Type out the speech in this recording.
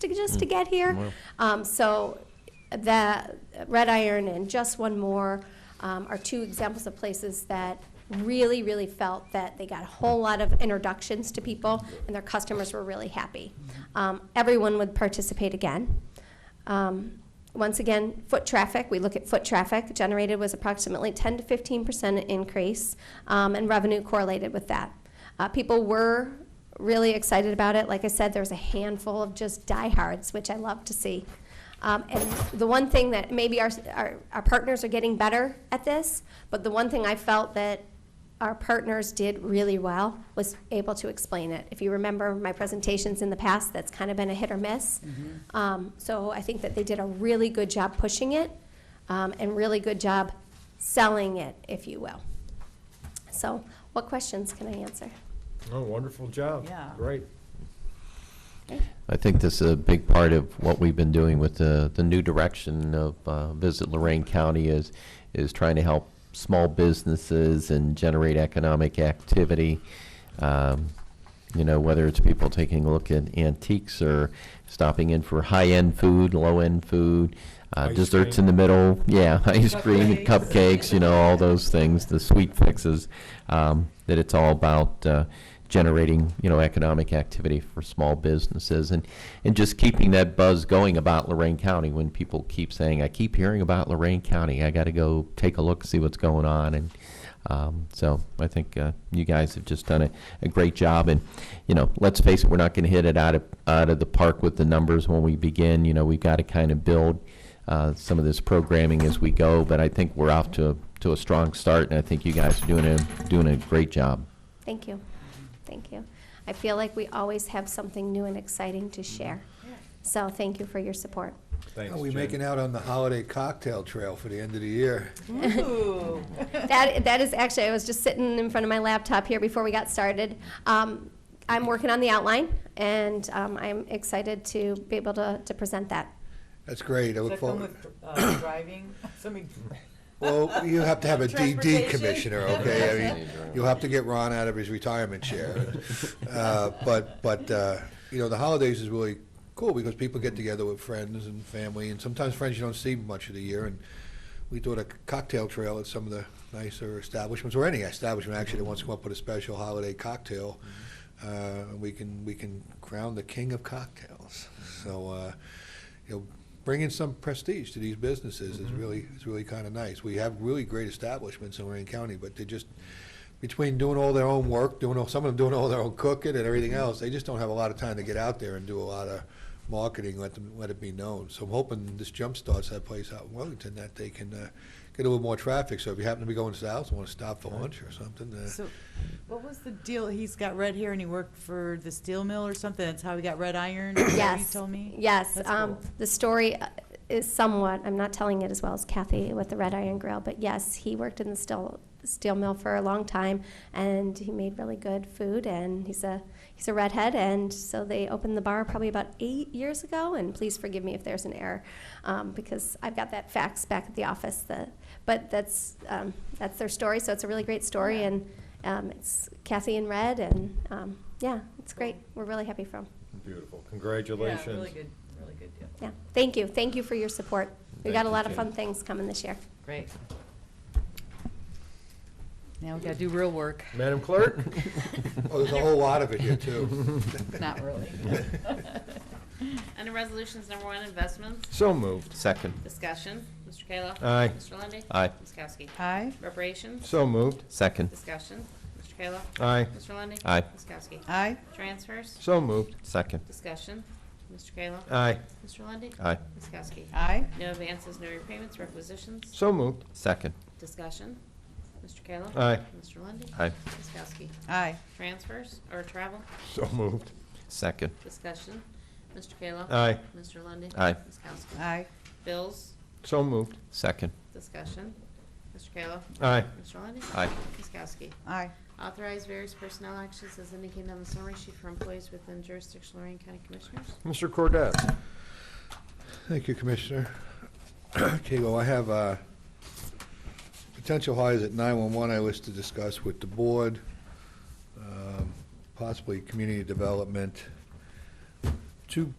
to, just to get here. Um, so the Red Iron and Just One More um, are two examples of places that really, really felt that they got a whole lot of introductions to people and their customers were really happy. Um, everyone would participate again. Um, Once again, foot traffic, we look at foot traffic generated was approximately 10 to 15 percent increase, um, and revenue correlated with that. Uh, People were really excited about it. Like I said, there was a handful of just diehards, which I love to see. Um, And the one thing that, maybe our, our our partners are getting better at this, but the one thing I felt that our partners did really well was able to explain it. If you remember my presentations in the past, that's kind of been a hit or miss. Um, so I think that they did a really good job pushing it um, and really good job selling it, if you will. So, what questions can I answer? Oh, wonderful job. Yeah. Great. I think this is a big part of what we've been doing with the, the new direction of uh, Visit Lorraine County is, is trying to help small businesses and generate economic activity. Um, You know, whether it's people taking a look at antiques or stopping in for high-end food, low-end food, uh, Ice desserts cream. in the middle, yeah, ice cream, Cupcakes. cupcakes, you know, all those things, the sweet fixes, um, that it's all about uh, generating, you know, economic activity for small businesses and, and just keeping that buzz going about Lorraine County when people keep saying, I keep hearing about Lorraine County, I got to go take a look, see what's going on. And um, so I think uh, you guys have just done a, a great job. And, you know, let's face it, we're not going to hit it out of, out of the park with the numbers when we begin. You know, we've got to kind of build uh, some of this programming as we go, but I think we're off to, to a strong start, and I think you guys are doing a, doing a great job. Thank you. Thank you. I feel like we always have something new and exciting to share. So, thank you for your support. Thanks, How are we Jen. making out on the holiday cocktail trail for the end of the year? Ooh. That, that is actually, I was just sitting in front of my laptop here before we got started. Um, I'm working on the outline, and um, I'm excited to be able to, to present that. That's great, I Does look that come forward. with uh, driving? Somebody, Well, you have to have a DD Transportation. commissioner, okay? I mean, you'll have to get Ron out of his retirement chair. Uh, But, but, uh, you know, the holidays is really cool because people get together with friends and family and sometimes friends you don't see much of the year. And we do a cocktail trail at some of the nicer establishments, or any establishment actually that wants to come up with a special holiday cocktail. Uh, and we can, we can crown the king of cocktails. So, uh, you know, bringing some prestige to these businesses is really, is really kind of nice. We have really great establishments in Lorraine County, but they just, between doing all their own work, doing all, some of them doing all their own cooking and everything else, they just don't have a lot of time to get out there and do a lot of marketing, let them, let it be known. So I'm hoping this jump starts that place out in Wellington, that they can, uh, get a little more traffic. So if you happen to be going south and want to stop for lunch or something, uh, so, what was the deal? He's got red hair and he worked for the steel mill or something. That's how he got red iron? is that what Yes. You told me? Yes. That's um, cool. The story uh, is somewhat, I'm not telling it as well as Kathy with the Red Iron Grill, but yes, he worked in the steel, steel mill for a long time, and he made really good food, and he's a, he's a redhead, and so they opened the bar probably about eight years ago, and please forgive me if there's an error, um, because I've got that fax back at the office, that, but that's, um, that's their story, so it's a really great story, and um, it's Kathy in red, and, um, yeah, it's great. We're really happy for him. Beautiful. Yeah, Congratulations. really good, really good deal. Yeah, thank you, thank you for your support. We got Thank a you, lot of Jane. fun things coming this year. Great. Now we gotta do real work, Madam Clerk? oh, there's a whole lot of it here too. not really. Under Resolutions Number One, Investments, So moved. Second. Discussion, Mr. Kayla. Aye. Mr. Lundey. Aye. Ms. Kowski. Aye, Reparations, So moved. Second. Discussion, Mr. Kayla. Aye. Mr. Lundey. Aye. Ms. Kowski. aye, Transfers, So moved. Second. Discussion, Mr. Kayla. Aye. Mr. Lundey. Aye. Ms. Kowski. aye, No advances, no repayments, requisitions, So moved. Second. Discussion, Mr. Kayla. Aye. Mr. Lundey. Aye. Ms. Kowski. aye, Transfers or travel, So moved. Second. Discussion, Mr. Kayla. Aye. Mr. Lundey. Aye. Ms. Kowski. aye, Bills, So moved. Second. Discussion, Mr. Kayla. Aye. Mr. Lundey. Aye. Ms. Kowski. aye, Authorize various personnel actions as indicated on the summary sheet for employees within jurisdiction Lorraine County Commissioners. Mr. Cordez? Thank you, Commissioner. Okay, well, I have uh, potential hires at 911 I wish to discuss with the board, um, possibly community development. Two